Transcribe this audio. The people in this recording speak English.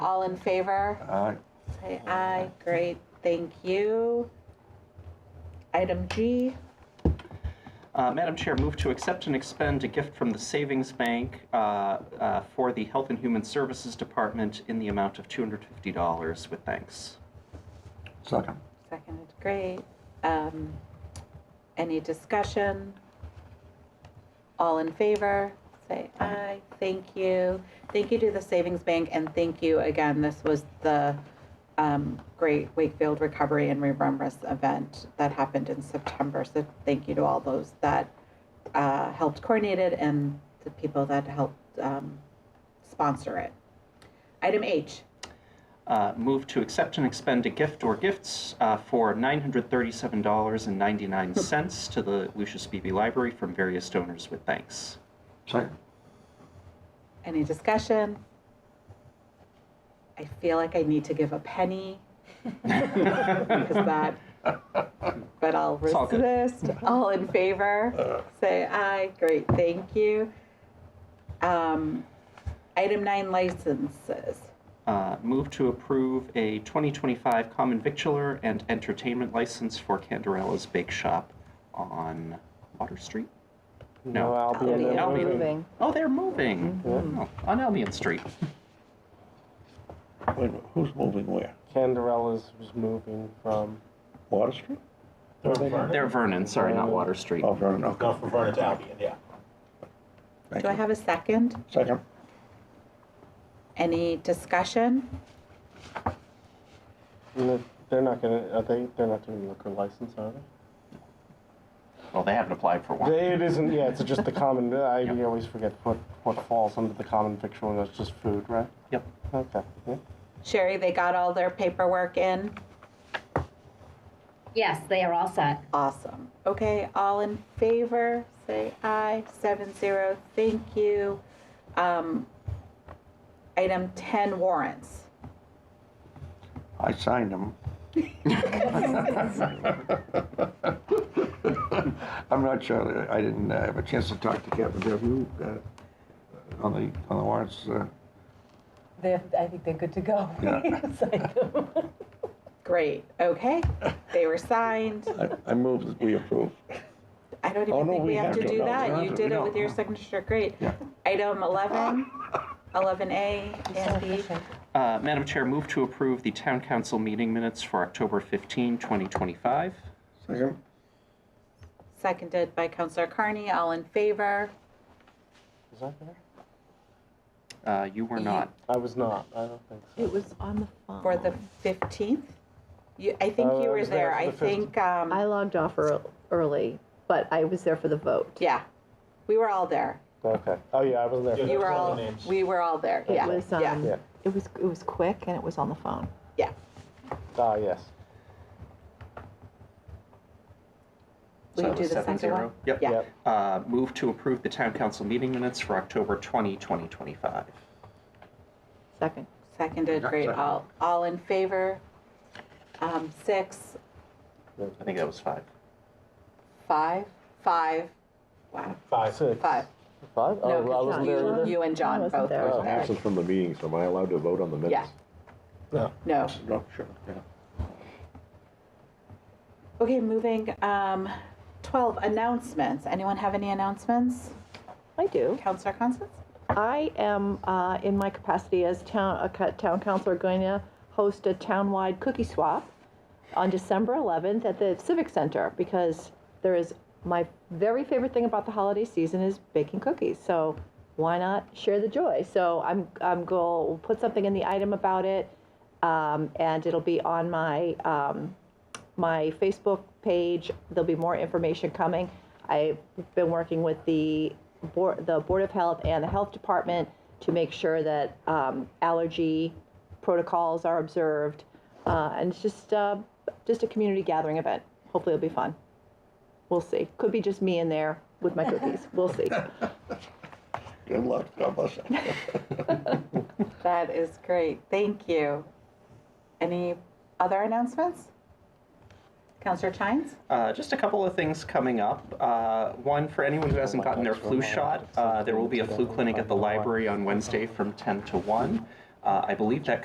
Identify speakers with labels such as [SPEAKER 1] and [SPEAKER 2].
[SPEAKER 1] All in favor?
[SPEAKER 2] Aye.
[SPEAKER 1] Say aye. Great, thank you. Item G,
[SPEAKER 3] Uh, Madam Chair, move to accept and expend a gift from the Savings Bank uh, uh, for the Health and Human Services Department in the amount of $250 with thanks.
[SPEAKER 2] Second.
[SPEAKER 1] seconded, great. Um, Any discussion? All in favor? Say aye. Thank you. Thank you to the Savings Bank and thank you again. This was the um, great Wakefield Recovery and Remembrance event that happened in September. So thank you to all those that uh, helped coordinate it and the people that helped um, sponsor it. Item H,
[SPEAKER 3] Uh, Move to accept and expend a gift or gifts uh, for $937.99 to the Lucius Beebe Library from various donors with thanks.
[SPEAKER 2] Second.
[SPEAKER 1] Any discussion? I feel like I need to give a penny because that, but I'll
[SPEAKER 3] It's all good.
[SPEAKER 1] resist. All in favor? Say aye. Great, thank you. Um, item nine licenses.
[SPEAKER 3] Uh, Move to approve a 2025 common victualler and entertainment license for Candarella's Bake Shop on Water Street? No.
[SPEAKER 4] Albion
[SPEAKER 1] Albion.
[SPEAKER 4] and
[SPEAKER 3] Albion.
[SPEAKER 4] moving.
[SPEAKER 3] Oh, they're moving Oh, on Albion Street.
[SPEAKER 2] Wait a minute, who's moving where?
[SPEAKER 4] Candarella's was moving from.
[SPEAKER 2] Water Street?
[SPEAKER 4] where they-
[SPEAKER 3] They're Vernon, sorry, not Water Street.
[SPEAKER 2] Oh, Vernon, okay.
[SPEAKER 5] Not from Vernon to Albion, yeah.
[SPEAKER 2] Thank
[SPEAKER 1] Do I
[SPEAKER 2] you.
[SPEAKER 1] have a second?
[SPEAKER 2] Second.
[SPEAKER 1] Any discussion?
[SPEAKER 4] No, They're not gonna, are they, they're not doing liquor license, are they?
[SPEAKER 3] Well, they haven't applied for one.
[SPEAKER 4] They, it isn't, yeah, it's just the common, I
[SPEAKER 3] Yep.
[SPEAKER 4] always forget what, what falls under the common victual, and that's just food, right?
[SPEAKER 3] Yep.
[SPEAKER 4] Okay, yeah.
[SPEAKER 1] Sherry, they got all their paperwork in?
[SPEAKER 6] Yes, they are all set.
[SPEAKER 1] Awesome. Okay, all in favor, say aye, seven zero, thank you. Um, item ten warrants.
[SPEAKER 2] I signed them. I'm not sure, that- I didn't uh, have a chance to talk to Kevin, have you, uh, on the, on the warrants? uh,
[SPEAKER 7] They're, I think they're good to go.
[SPEAKER 2] Yeah.
[SPEAKER 7] It's like,
[SPEAKER 1] Great, okay, they were signed.
[SPEAKER 2] I- I move that we approve.
[SPEAKER 1] I don't
[SPEAKER 2] Oh,
[SPEAKER 1] even
[SPEAKER 2] no,
[SPEAKER 1] think we
[SPEAKER 2] we
[SPEAKER 1] have
[SPEAKER 2] have
[SPEAKER 1] to
[SPEAKER 2] to.
[SPEAKER 1] do
[SPEAKER 2] No, we
[SPEAKER 1] that.
[SPEAKER 2] don't
[SPEAKER 1] You
[SPEAKER 2] have to.
[SPEAKER 1] did
[SPEAKER 2] We
[SPEAKER 1] it
[SPEAKER 2] don't.
[SPEAKER 1] with your signature, great.
[SPEAKER 2] Yeah.
[SPEAKER 1] Item eleven, eleven A
[SPEAKER 7] so
[SPEAKER 1] and B.
[SPEAKER 7] efficient.
[SPEAKER 3] Uh, Madam Chair, move to approve the Town Council meeting minutes for October 15, 2025.
[SPEAKER 2] Second.
[SPEAKER 1] Seconded by Counselor Carney, all in favor.
[SPEAKER 4] Is that there?
[SPEAKER 3] Uh, You were not.
[SPEAKER 4] I was not, I don't think so.
[SPEAKER 8] It was on the phone.
[SPEAKER 1] For the fifteenth? You, I think
[SPEAKER 2] Uh,
[SPEAKER 4] Oh,
[SPEAKER 1] you
[SPEAKER 4] I
[SPEAKER 1] were
[SPEAKER 4] was there
[SPEAKER 1] there,
[SPEAKER 4] for
[SPEAKER 1] I
[SPEAKER 4] the 15th.
[SPEAKER 1] think, um.
[SPEAKER 8] I logged off ear- early, but I was there for the vote.
[SPEAKER 1] Yeah, we were all there.
[SPEAKER 4] Okay, oh yeah, I wasn't there. for
[SPEAKER 1] You
[SPEAKER 4] that.
[SPEAKER 1] were
[SPEAKER 5] all
[SPEAKER 1] all,
[SPEAKER 5] the names.
[SPEAKER 1] we were all there.
[SPEAKER 8] It
[SPEAKER 1] Yeah,
[SPEAKER 8] was,
[SPEAKER 1] yeah,
[SPEAKER 8] um,
[SPEAKER 4] Yeah.
[SPEAKER 8] it was, it was quick and it was on the phone.
[SPEAKER 1] yeah.
[SPEAKER 4] Ah, yes.
[SPEAKER 1] Will
[SPEAKER 3] So
[SPEAKER 1] you
[SPEAKER 3] it
[SPEAKER 1] do
[SPEAKER 3] was
[SPEAKER 1] the
[SPEAKER 3] seven
[SPEAKER 1] second
[SPEAKER 3] zero.
[SPEAKER 1] one?
[SPEAKER 3] Yep.
[SPEAKER 1] Yeah.
[SPEAKER 4] Yep.
[SPEAKER 3] Uh, Move to approve the Town Council meeting minutes for October 20, 2025.
[SPEAKER 8] Second.
[SPEAKER 1] Seconded,
[SPEAKER 2] Yeah,
[SPEAKER 1] great.
[SPEAKER 2] second.
[SPEAKER 1] All, all in favor? Um, six,
[SPEAKER 3] I think that was five.
[SPEAKER 1] five, five. Wow,
[SPEAKER 4] Five. Six.
[SPEAKER 1] five.
[SPEAKER 4] Five? Oh,
[SPEAKER 1] No,
[SPEAKER 4] I
[SPEAKER 1] 'cause
[SPEAKER 4] wasn't
[SPEAKER 1] you-
[SPEAKER 4] there either? Oh,
[SPEAKER 1] You and
[SPEAKER 8] I
[SPEAKER 1] John
[SPEAKER 8] wasn't
[SPEAKER 1] both
[SPEAKER 8] there.
[SPEAKER 4] I
[SPEAKER 1] were
[SPEAKER 4] was
[SPEAKER 1] there.
[SPEAKER 9] from the meeting, so am I allowed to vote on the
[SPEAKER 1] Yeah,
[SPEAKER 9] minutes?
[SPEAKER 4] No.
[SPEAKER 1] no.
[SPEAKER 2] No, Oh, sure, yeah.
[SPEAKER 1] Okay, moving, um, twelve, announcements. Anyone have any announcements?
[SPEAKER 8] I do.
[SPEAKER 1] Counselor Constance?
[SPEAKER 8] I am, uh, in my capacity as town, a co- town councilor, going to host a townwide cookie swap on December 11th at the Civic Center because there is, my very favorite thing about the holiday season is baking cookies. So why not share the joy? So I'm, I'm going, we'll put something in the item about it. Um, and it'll be on my, um, my Facebook page. There'll be more information coming. I've been working with the board, the Board of Health and the Health Department to make sure that um, allergy protocols are observed, uh, and it's just uh, just a community gathering event. Hopefully, it'll be fun. We'll see. Could be just me in there with my cookies. We'll see.
[SPEAKER 2] Good luck, God bless you.
[SPEAKER 1] That is great. Thank you. Any other announcements? Counselor Chines?
[SPEAKER 3] Uh, just a couple of things coming up. Uh, one, for anyone who hasn't gotten their flu shot, uh, there will be a flu clinic at the library on Wednesday from 10 to 1. Uh, I believe that